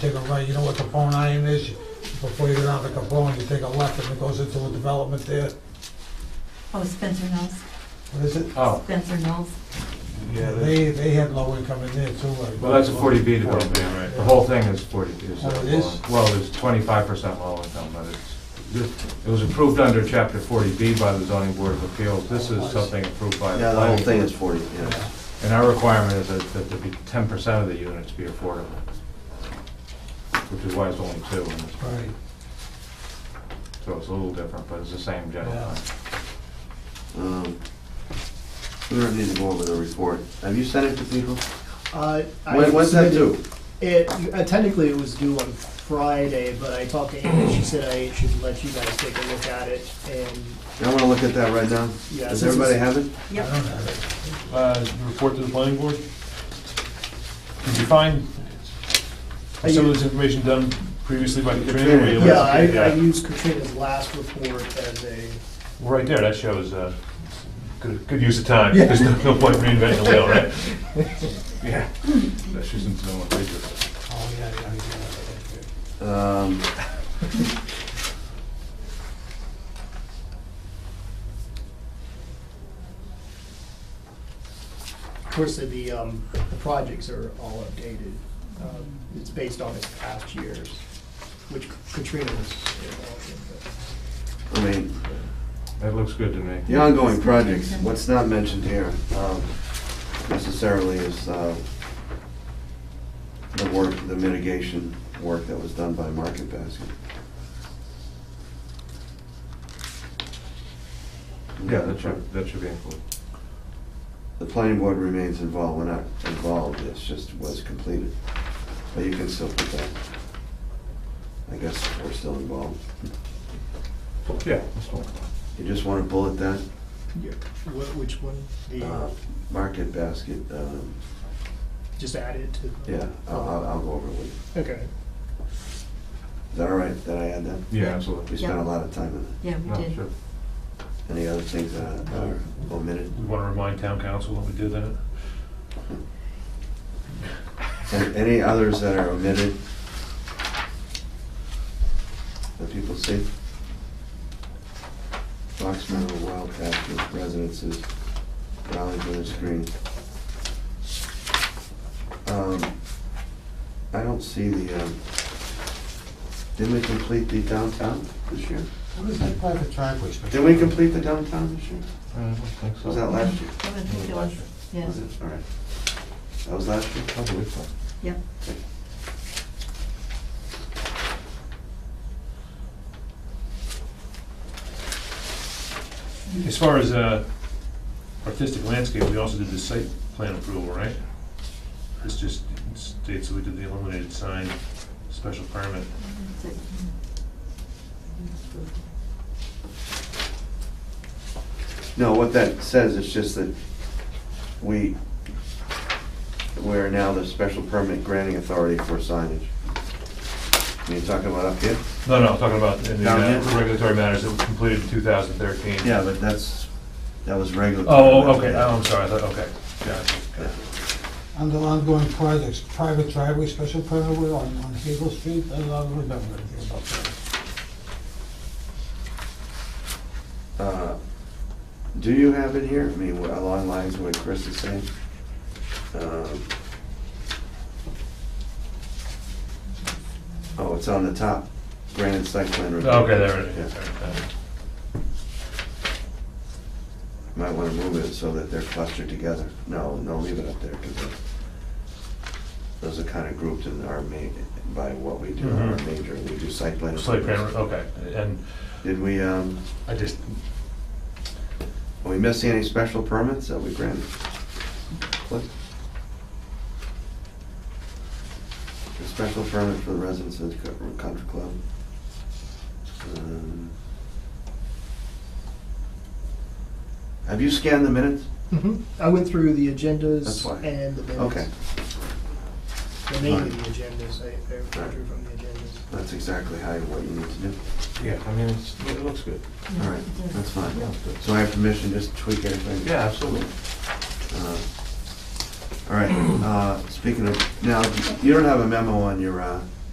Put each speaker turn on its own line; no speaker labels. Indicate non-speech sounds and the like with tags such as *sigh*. take a right, you know what Capone Iron is? Before you go down to Capone, you take a left and it goes into a development there.
Oh, Spencer Knowles,
What is it?
Oh,
Spencer Knowles.
yeah, that's,
They, they had low income in there too. like-
well, that's a forty B development,
right.
the whole thing is forty B. so-
Oh, it is?
Well, it's twenty-five percent low income, but it's, it was approved under chapter forty B by the zoning board of appeals, this is something approved by the
Yeah, the whole
planning
thing
board.
is forty, yeah.
And our requirement is that, that there be ten percent of the units be affordable, which is why it's only two, and it's-
Right,
so it's a little different, but it's the same general
Yeah.
plan.
Um, We don't need to go over the report. Have you sent it to people?
Uh, I
When, when's that
submitted-
due?
It, uh, technically, it was due on Friday, but I talked to Amy, she said I should let you guys take a look at it, and
I wanna look at that right now.
Yeah,
Does
since
everybody
it's-
have it?
I don't have it.
Uh, report to the planning board? Did you find
I
some of
use-
this information done previously by Katrina?
Katrina,
where you-
Yeah, I, I
Yeah.
used Katrina's last report as a,
Right there, that shows, uh, good, good use of time. There's no no point reinventing the wheel,
*laughs*
right?
Yeah. That shouldn't be what they do.
Oh, yeah, yeah, yeah.
Um,
of course, the, um, the projects are all updated. Um, It's based on its past years, which Katrina was involved in, but.
I mean,
That looks good to me.
the ongoing projects, what's not mentioned here um, necessarily is uh, the work, the mitigation work that was done by Market Basket.
Yeah, that should, that should be included.
The planning board remains involved, we're not involved, it's just was completed. But you can still put that. I guess we're still involved.
Yeah. that's fine.
You just want to bullet that?
Yeah, wh- which one?
Uh,
The,
Market basket, um,
just add it to? the-
yeah, I'll, I'll- I'll go over it with you.
Okay.
Is that all right that I add that?
Yeah,
We
absolutely.
spent a
Yeah.
lot of time on
Yeah, we
Oh,
No,
did.
sure.
it. Any other things that are omitted?
We want to remind town council when we do that.
And Any others that are omitted? That people see? Fox Meadow Wild Pasture Residences, Raleigh Village Green. Um, I don't see the, um, didn't we complete the downtown this year?
What is that private driveway?
Did we complete the downtown this year?
I don't think so.
Was that last year?
I would think it was, yeah,
Was it? All right. That was last year?
I believe so.
yeah.
As far as uh, artistic landscape, we also did the site plan approval, right? This just states that we did the illuminated sign special permit.
No, what that says is just that we, we are now the special permit granting authority for signage. You talking about up here?
No, no, I'm talking about in the
Down here?
uh, regulatory matters that were completed in 2013.
Yeah, but that's, that was regular.
Oh, oh, okay, oh, I'm sorry, I thought, okay, gotcha.
Under ongoing projects, private driveway special permit, we're on, on Hazel Street, I don't remember anything about that.
Uh, Do you have it here? I mean, wh- along lines of what Chris is saying? Um, Oh, it's on the top, granted site plan review.
Okay, there it
Yeah.
is.
Might want to move it so that they're clustered together. No, no, leave it up there, because those are kind of grouped in our main, by what we do, our
Mhm.
major, we do site plan.
Slate plan,
approvals.
okay, and
Did we, um,
I just,
are we missing any special permits that we granted? What? A special permit for the residents of the co- country club. Um, Have you scanned the minutes?
Mhm. I went through the
That's
agendas
why.
and the minutes.
Okay.
Well, Mainly
Right.
the agendas, I, I drew from the agendas.
That's exactly how, what you need to do.
Yeah, I mean, it's, it looks good.
All right, that's fine.
It looks good.
So I have permission just to tweak everything?
Yeah, absolutely.
Uh, All right, uh, speaking of, now, you don't have a memo on your, uh,